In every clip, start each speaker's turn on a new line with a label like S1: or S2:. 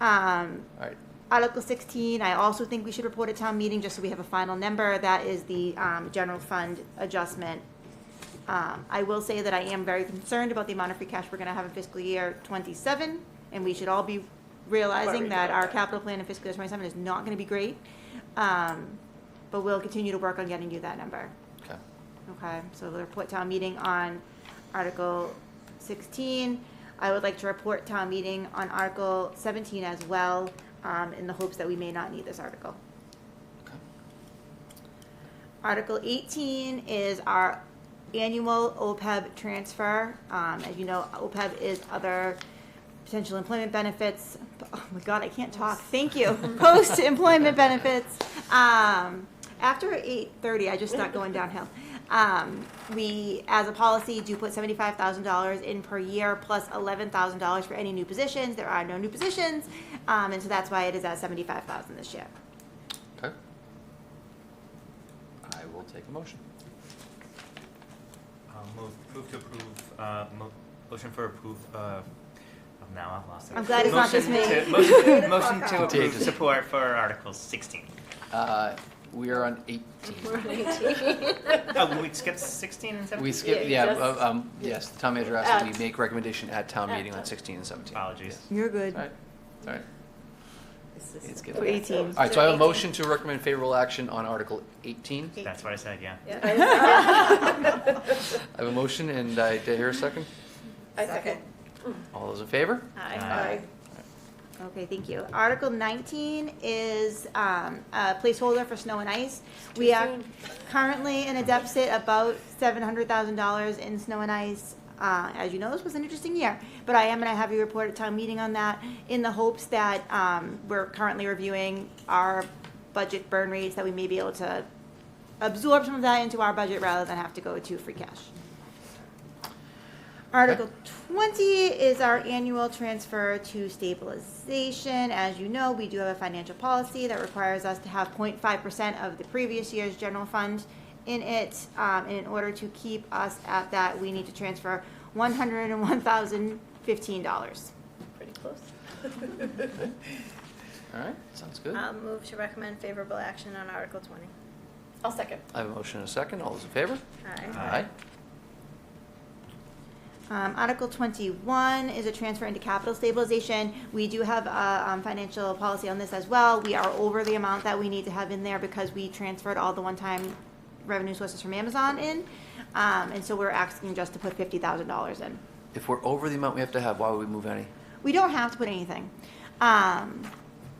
S1: Um,
S2: All right,
S1: Article 16, I also think we should report at town meeting, just so we have a final number. That is the um, general fund adjustment. Um, I will say that I am very concerned about the amount of free cash we're going to have in fiscal year '27, and we should all be realizing
S3: Worried
S1: that
S3: about
S1: our
S3: that.
S1: capital plan in fiscal year '27 is not going to be great. Um, But we'll continue to work on getting you that number.
S2: okay.
S1: Okay, so we'll report town meeting on Article sixteen. I would like to report town meeting on Article seventeen as well, um, in the hopes that we may not need this article.
S2: okay.
S1: Article eighteen is our annual OPEB transfer. Um, as you know, OPEB is other potential employment benefits. Oh my God, I can't talk. Thank you. Post-employment benefits. Um, after eight thirty, I just start going downhill. Um, we, as a policy, do put seventy-five thousand dollars in per year plus eleven thousand dollars for any new positions. There are no new positions, um, and so that's why it is at seventy-five thousand this year.
S2: Okay. I will take a motion.
S3: Uh, Move, move to approve, uh, mo- motion for approve, uh, oh, now I've lost it.
S1: I'm glad it's not just
S3: Motion
S1: me.
S3: to- Motion motion to approve
S2: Contagious.
S3: support for Article sixteen.
S2: Uh, We are on 18.
S3: Oh, we skipped sixteen and
S2: We
S3: seventeen?
S2: skip,
S4: Yeah,
S2: yeah,
S4: just-
S2: uh, um, yes, the town manager asked that
S4: At-
S2: we make recommendation at town
S4: at
S2: meeting on
S4: town.
S2: 16 and 17.
S3: Apologies.
S1: You're good.
S2: All right, all right. It's good.
S1: Oh, 18.
S2: All right, so I have a motion to recommend favorable action on Article 18.
S3: That's what I said, yeah.
S2: I have a motion, and I, did I hear a second?
S4: I second.
S2: All those in favor?
S3: Aye.
S1: Okay, thank you. Article 19 is um, a placeholder for snow and ice. We are
S4: soon.
S1: currently in a deficit about $700,000 in snow and ice. Uh, As you know, this was an interesting year, but I am going to have you report at town meeting on that in the hopes that um, we're currently reviewing our budget burn rates, that we may be able to absorb some of that into our budget rather than have to go to free cash. Article 20 is our annual transfer to stabilization. As you know, we do have a financial policy that requires us to have 0.5% of the previous year's general fund in it. Um, And in order to keep us at that, we need to transfer $101,015.
S4: Pretty close.
S2: All right, sounds good.
S4: Um.
S5: I'll move to recommend favorable action on Article 20.
S4: I'll second.
S2: I have a motion and a second. All those in favor?
S5: Aye.
S3: Aye.
S1: Um, Article twenty-one is a transfer into capital stabilization. We do have a, um, financial policy on this as well. We are over the amount that we need to have in there because we transferred all the one-time revenue sources from Amazon in. Um, and so we're asking just to put fifty thousand dollars in.
S2: If we're over the amount we have to have, why would we move any?
S1: We don't have to put anything. Um,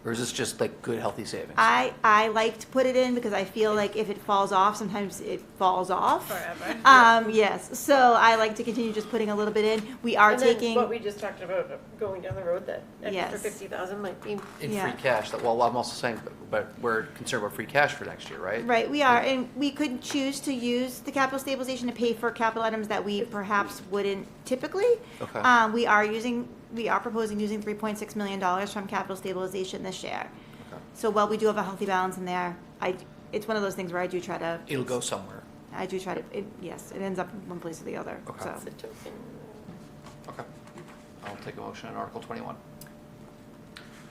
S2: Or is this just like good, healthy savings?
S1: I, I like to put it in because I feel like if it falls off, sometimes it falls off.
S5: Forever.
S1: Um, yes, so I like to continue just putting a little bit in. We are
S4: And then
S1: taking.
S4: What we just talked about, uh, going down the road, that extra
S1: Yes.
S4: fifty thousand might be.
S2: In
S1: Yeah.
S2: free cash, that, well, I'm also saying, but- but we're concerned about free cash for next year, right?
S1: Right, we are, and we could choose to use the capital stabilization to pay for capital items that we perhaps wouldn't typically.
S2: Okay.
S1: Um, we are using, we are proposing using three point six million dollars from capital stabilization this year.
S2: Okay.
S1: So while we do have a healthy balance in there, I, it's one of those things where I do try to,
S2: It'll go somewhere.
S1: I do try to, it, yes, it ends up in one place or the other,
S2: Okay.
S1: so.
S4: It's a token.
S2: Okay. I'll take a motion on Article 21.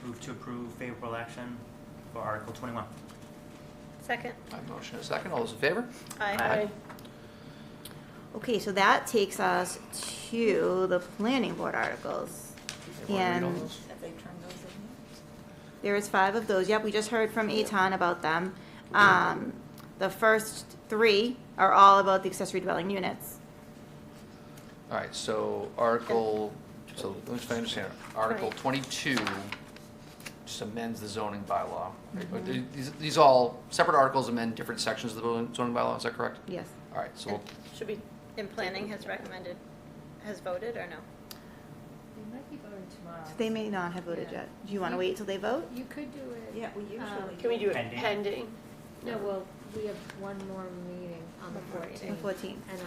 S3: Move to approve favorable action for Article twenty-one.
S5: Second.
S2: I have a motion and a second. All those in favor?
S5: Aye.
S1: Okay, so that takes us to the planning board articles.
S2: Everyone read all
S1: And-
S2: those?
S1: There is five of those. Yep, we just heard from Eton about them. Um, the first three are all about the accessory dwelling units.
S2: All right, so Article, so let me just understand. Article 22 just amends the zoning bylaw. right?
S1: Mm-hmm.
S2: But These, these all, separate articles amend different sections of the building- zoning bylaw, is that correct?
S1: Yes.
S2: All right, so we'll
S4: Should be.
S5: And planning has recommended, has voted or no?
S6: They might be voting tomorrow.
S1: They may not have voted yet. Do you want to wait till they vote?
S6: You could do it.
S7: Yeah, we
S6: um,
S7: usually.
S4: Can we do it
S3: Pending.
S4: pending?
S6: No, well, we have one more meeting on the
S5: One more meeting.
S1: The
S6: 14th.
S1: 14th.
S6: And um,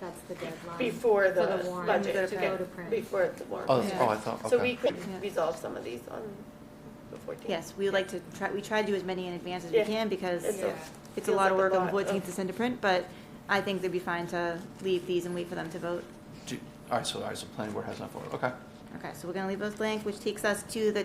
S6: that's the deadline.
S4: Before
S6: for
S4: the
S6: warrant
S4: budget to
S6: go to
S4: get,
S6: print.
S4: before the warrant.
S2: Oh,
S1: that's-
S2: oh, I thought-
S4: So
S2: okay.
S4: we could
S1: Yeah.
S4: resolve some of these on the fourteenth.
S1: Yes, we would like to try, we try to do as many in advance as we
S4: Yeah.
S1: can because
S4: It's
S6: a-
S1: it's a
S4: feels
S1: lot of
S4: like
S1: work
S4: a
S1: on the
S4: lot of-
S1: fourteenth to send to print, but I think they'd be fine to leave these and wait for them to vote.
S2: do, all right, so, all right, so planning board has not voted, okay.
S1: Okay, so we're gonna leave those blank, which takes us to the